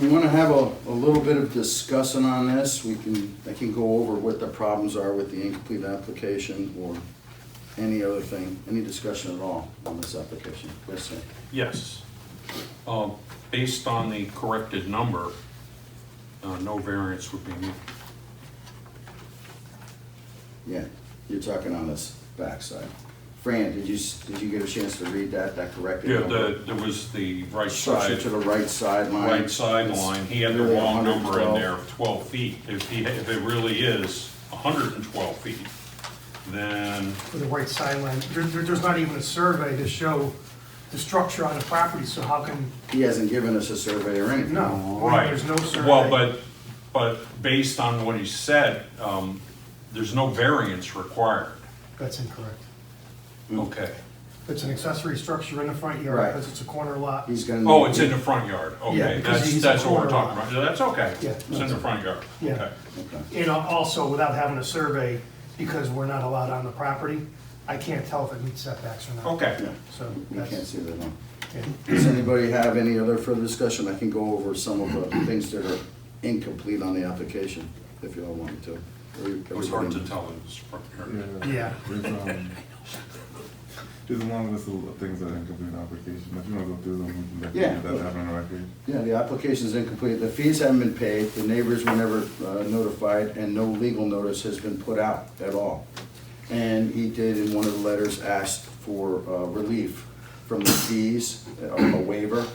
We want to have a, a little bit of discussing on this. We can, I can go over what the problems are with the incomplete application or any other thing, any discussion at all on this application. Yes, sir. Yes. Um, Based on the corrected number, uh, no variance would be needed. Yeah, you're talking on this backside. Fran, did you, s- did you get a chance to read that, that corrected? Yeah, number? the, there was the right Push it side, to the right sideline. right sideline, he had the Really wrong number in 112. there, of twelve feet. If he, if it really is hundred and twelve feet, then, for the right sideline. There, there- there's not even a survey to show the structure on the property, so how can, He hasn't given us a survey or anything. no, right. there's no survey. Well, but, but based on what he said, um, there's no variance required. That's incorrect. Okay. It's an accessory structure in the front Right. yard, because it's a corner lot. He's gonna. Oh, need- it's in the front yard, Yeah, okay, because that's, he's that's a what we're corner talking lot. about, that's okay, Yeah, it's in the front yard, Yeah. okay. Okay. And uh, also, without having a survey, because we're not allowed on the property, I can't tell if it meets setbacks or not. Okay, Yeah, So we can't that's, see that one. yeah. Does anybody have any other further discussion? I can go over some of the things that are incomplete on the application, if you all wanted to. it was hard to tell it was front yard. Yeah. There's, um, there's a long list of things that incomplete application, if you wanna go through them, we can Yeah. definitely get that have on record. Yeah, the application's incomplete, the fees haven't been paid, the neighbors were never uh, notified, and no legal notice has been put out at all. And he did, in one of the letters, asked for uh, relief from the fees, uh, a waiver,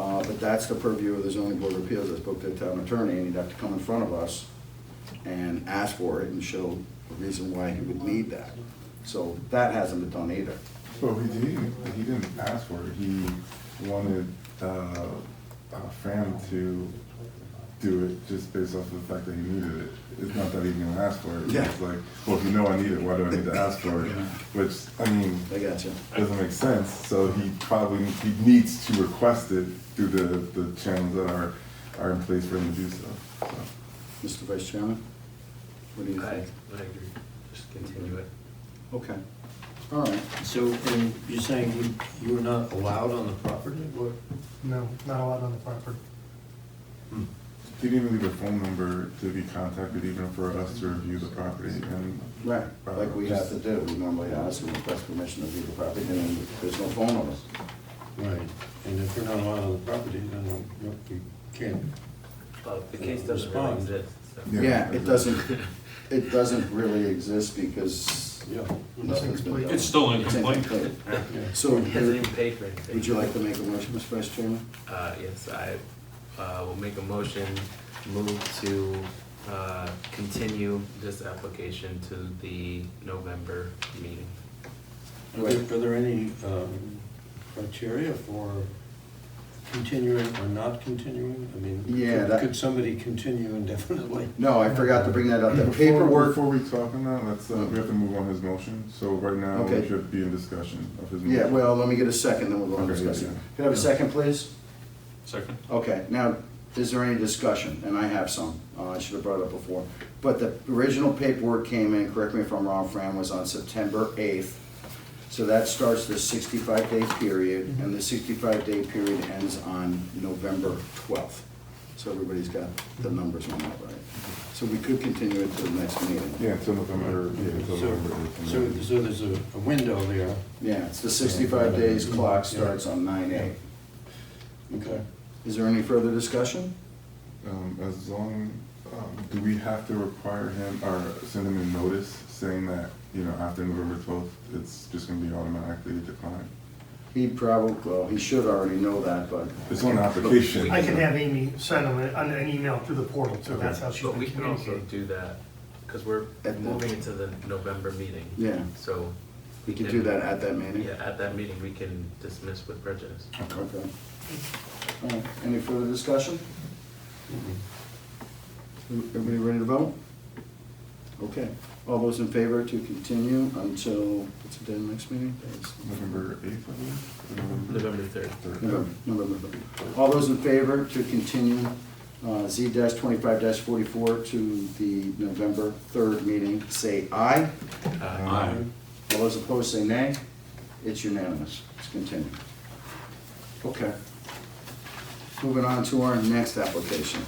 uh, but that's the purview of the zoning board of appeals, I spoke to the town attorney, and he'd have to come in front of us and ask for it and show the reason why he would need that. So that hasn't been done either. Well, he didn't, he didn't ask for it, he wanted, uh, uh, Fran to do it just based off of the fact that he needed it. It's not that he didn't ask for it, Yeah. it's like, well, if you know I need it, why do I need to ask for it? Which, I mean, I got you. doesn't make sense, so he probably, he needs to request it through the, the channels that are, are in place for him to do so, so. Mr. Vice Chairman? What do you I, think? I agree, just continue it. Okay, all right. So, and you're saying you, you were not allowed on the property, what? No, not allowed on the property. He didn't even leave a phone number to be contacted even for us to review the property and. Right, like we have to do, we normally ask and request permission to view the property, and then there's no phone number. Right, and if you're not allowed on the property, then you, you can't. Well, the case doesn't really Respond. exist, so. Yeah, it doesn't, it doesn't really exist because Yeah. nothing's been done. It's still incomplete. incomplete. Yeah. So, It hasn't even paid for anything. would you like to make a motion, Mr. Vice Chairman? Uh, yes, I, uh, will make a motion, move to, uh, continue this application to the November meeting. Are there, are there any, um, criteria for continuing or not continuing? I mean, Yeah, could- that- Could somebody continue indefinitely? No, I forgot to bring that up, the Before- paperwork, Before we talk on that, let's, uh, we have to move on his motion, so right now, Okay. we should be in discussion of his. yeah, motion. well, let me get a second, then we'll go on Okay, discussing. yeah. Could I have a second, please? Second, Okay, now, is there any discussion? And I have some, uh, I should have brought it up before. But the original paperwork came in, correct me if I'm wrong, Fran, was on September 8th. So that starts the 65-day period, and the 65-day period ends on November 12th. So everybody's got the numbers on that, right? So we could continue it to the next meeting. Yeah, until November, yeah, until So, so, November. so there's a, a window there, Yeah, it's the 65 days, clock starts on 9/8. okay? Is there any further discussion? Um, as long, um, do we have to require him or send him a notice saying that, you know, after November twelfth, it's just gonna be automatically declined? He probably, well, he should already know that, but It's on the application. I can have Amy send them an, an email through the portal, so that's how she But can we can also communicate. do that, because we're At the- moving it to the November meeting. Yeah. So. we could do that at that meeting. Yeah, at that meeting, we can dismiss with prejudice. Okay. All right, Any further discussion? Everybody ready to vote? Okay. All those in favor to continue until, what's the day of the next meeting? November eighth, I believe? Mm-hmm. November third. Third. November, November. All those in favor to continue uh, Z twenty-five forty-four to the November third meeting, say aye. Uh, Aye. All those opposed say nay. It's unanimous. It's continued. Okay. Moving on to our next application.